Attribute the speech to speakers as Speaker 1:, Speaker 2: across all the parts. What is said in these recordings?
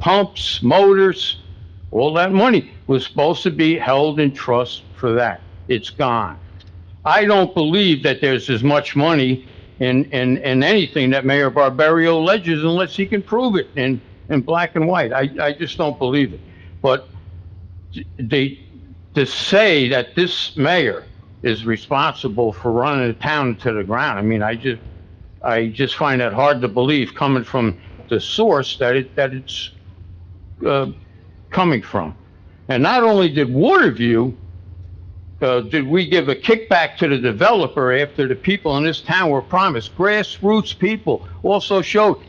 Speaker 1: pumps, motors, all that money was supposed to be held in trust for that. It's gone. I don't believe that there's as much money in, in, in anything that Mayor Barbario alleges unless he can prove it in, in black and white. I, I just don't believe it. But they, to say that this mayor is responsible for running the town to the ground, I mean, I just, I just find that hard to believe coming from the source that it, that it's, uh, coming from. And not only did Waterview, uh, did we give a kickback to the developer after the people in this town were promised, grassroots people also showed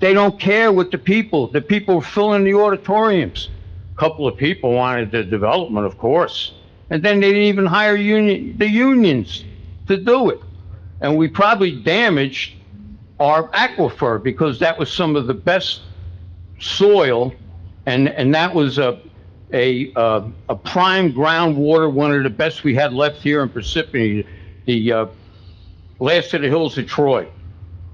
Speaker 1: they don't care what the people, the people were filling the auditoriums. A Couple of people wanted the development, of course. And then they didn't even hire union, the unions to do it. And we probably damaged our aquifer because that was some of the best soil and, and that was a, a, uh, a prime groundwater, one of the best we had left here in Parsippany, the, uh, last of the hills of Troy.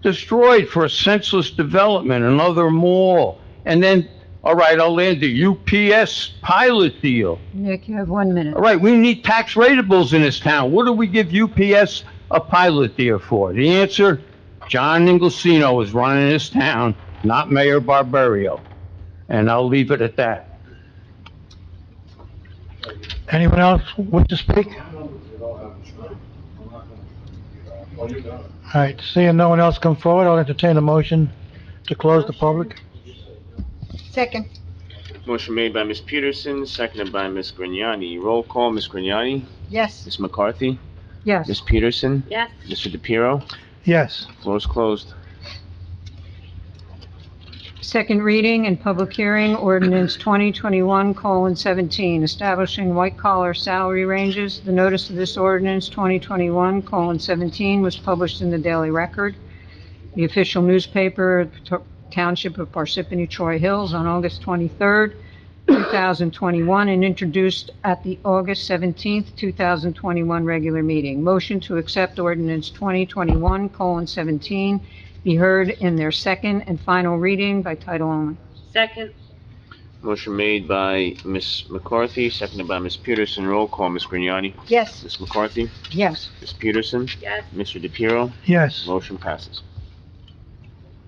Speaker 1: Destroyed for a senseless development, another mall, and then, all right, I'll land the UPS pilot deal.
Speaker 2: Nick, you have one minute.
Speaker 1: All right, we need tax ratables in this town. What do we give UPS a pilot deal for? The answer, John Inglesino is running this town, not Mayor Barbario. And I'll leave it at that.
Speaker 3: Anyone else wish to speak? All right, seeing no one else come forward, I'll entertain a motion to close the public.
Speaker 2: Second.
Speaker 4: Motion made by Ms. Peterson, seconded by Ms. Grignani. Roll call, Ms. Grignani?
Speaker 2: Yes.
Speaker 4: Ms. McCarthy?
Speaker 2: Yes.
Speaker 4: Ms. Peterson?
Speaker 5: Yes.
Speaker 4: Mr. DePiero?
Speaker 3: Yes,
Speaker 4: Floor is closed.
Speaker 2: Second reading and public hearing, ordinance 2021:17, establishing white-collar salary ranges. The notice of this ordinance, 2021:17, was published in the Daily Record, the official newspaper of the to- Township of Parsippany Troy Hills, on August 23rd, 2021, and introduced at the August 17th, 2021 regular meeting. Motion to accept ordinance 2021:17 be heard in their second and final reading by title only.
Speaker 5: Second.
Speaker 4: Motion made by Ms. McCarthy, seconded by Ms. Peterson. Roll call, Ms. Grignani?
Speaker 2: Yes.
Speaker 4: Ms. McCarthy?
Speaker 2: Yes.
Speaker 4: Ms. Peterson?
Speaker 5: Yes.
Speaker 4: Mr. DePiero?
Speaker 3: yes,
Speaker 4: Motion passes.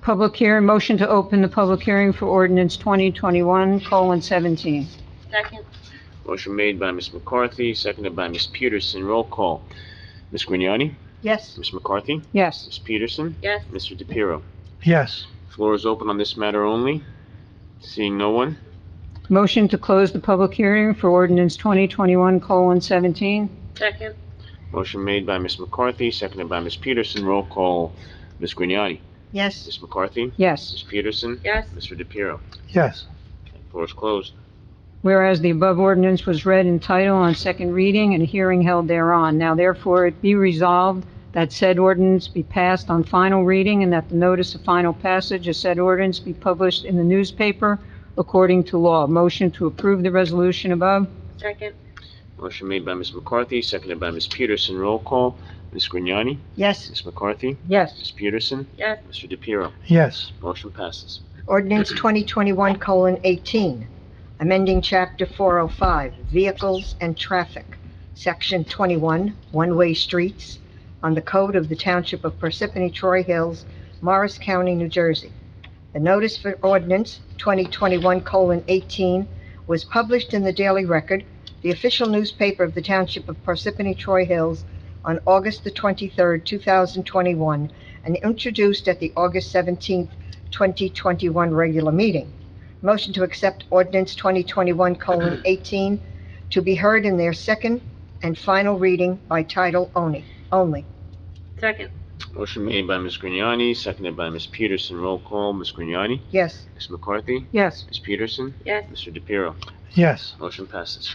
Speaker 2: Public hearing, motion to open the public hearing for ordinance 2021:17.
Speaker 5: Second.
Speaker 4: Motion made by Ms. McCarthy, seconded by Ms. Peterson. Roll call, Ms. Grignani?
Speaker 2: Yes.
Speaker 4: Ms. McCarthy?
Speaker 2: Yes.
Speaker 4: Ms. Peterson?
Speaker 5: Yes.
Speaker 4: Mr. DePiero?
Speaker 3: yes,
Speaker 4: Floor is open on this matter only. Seeing no one?
Speaker 2: Motion to close the public hearing for ordinance 2021:17.
Speaker 5: Second.
Speaker 4: Motion made by Ms. McCarthy, seconded by Ms. Peterson. Roll call, Ms. Grignani.
Speaker 2: Yes.
Speaker 4: Ms. McCarthy?
Speaker 2: Yes.
Speaker 4: Ms. Peterson?
Speaker 5: Yes.
Speaker 4: Mr. DePiero?
Speaker 3: yes,
Speaker 4: Floor is closed.
Speaker 2: Whereas the above ordinance was read in title on second reading and a hearing held thereon, now therefore it be resolved that said ordinance be passed on final reading and that the notice of final passage of said ordinance be published in the newspaper according to law. Motion to approve the resolution above?
Speaker 5: Second.
Speaker 4: Motion made by Ms. McCarthy, seconded by Ms. Peterson. Roll call, Ms. Grignani.
Speaker 2: Yes.
Speaker 4: Ms. McCarthy?
Speaker 2: Yes.
Speaker 4: Ms. Peterson?
Speaker 5: Yes.
Speaker 4: Mr. DePiero?
Speaker 3: yes,
Speaker 4: Motion passes.
Speaker 6: Ordinance 2021:18, amending Chapter 405, Vehicles and Traffic, Section 21, One-Way Streets, on the Code of the Township of Parsippany Troy Hills, Morris County, New Jersey. The notice for ordinance 2021:18 was published in the Daily Record, the official newspaper of the Township of Parsippany Troy Hills, on August the 23rd, 2021, and introduced at the August 17th, 2021 regular meeting. Motion to accept ordinance 2021:18 to be heard in their second and final reading by title only, only.
Speaker 5: Second.
Speaker 4: Motion made by Ms. Grignani, seconded by Ms. Peterson. Roll call, Ms. Grignani.
Speaker 6: Yes.
Speaker 4: Ms. McCarthy?
Speaker 2: Yes.
Speaker 4: Ms. Peterson?
Speaker 5: Yes.
Speaker 4: Mr. DePiero?
Speaker 3: yes,
Speaker 4: Motion passes.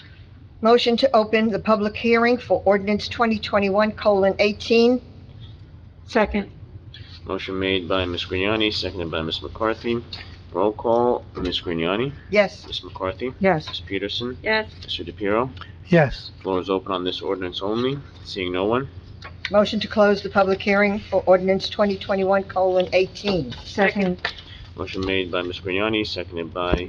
Speaker 6: Motion to open the public hearing for ordinance 2021:18.
Speaker 2: Second.
Speaker 4: Motion made by Ms. Grignani, seconded by Ms. McCarthy. Roll call, Ms. Grignani.
Speaker 6: Yes.
Speaker 4: Ms. McCarthy?
Speaker 2: Yes.
Speaker 4: Ms. Peterson?
Speaker 5: Yes.
Speaker 4: Mr. DePiero?
Speaker 3: yes,
Speaker 4: Floor is open on this ordinance only. Seeing no one?
Speaker 6: Motion to close the public hearing for ordinance 2021:18.
Speaker 2: Second.
Speaker 4: Motion made by Ms. Grignani, seconded by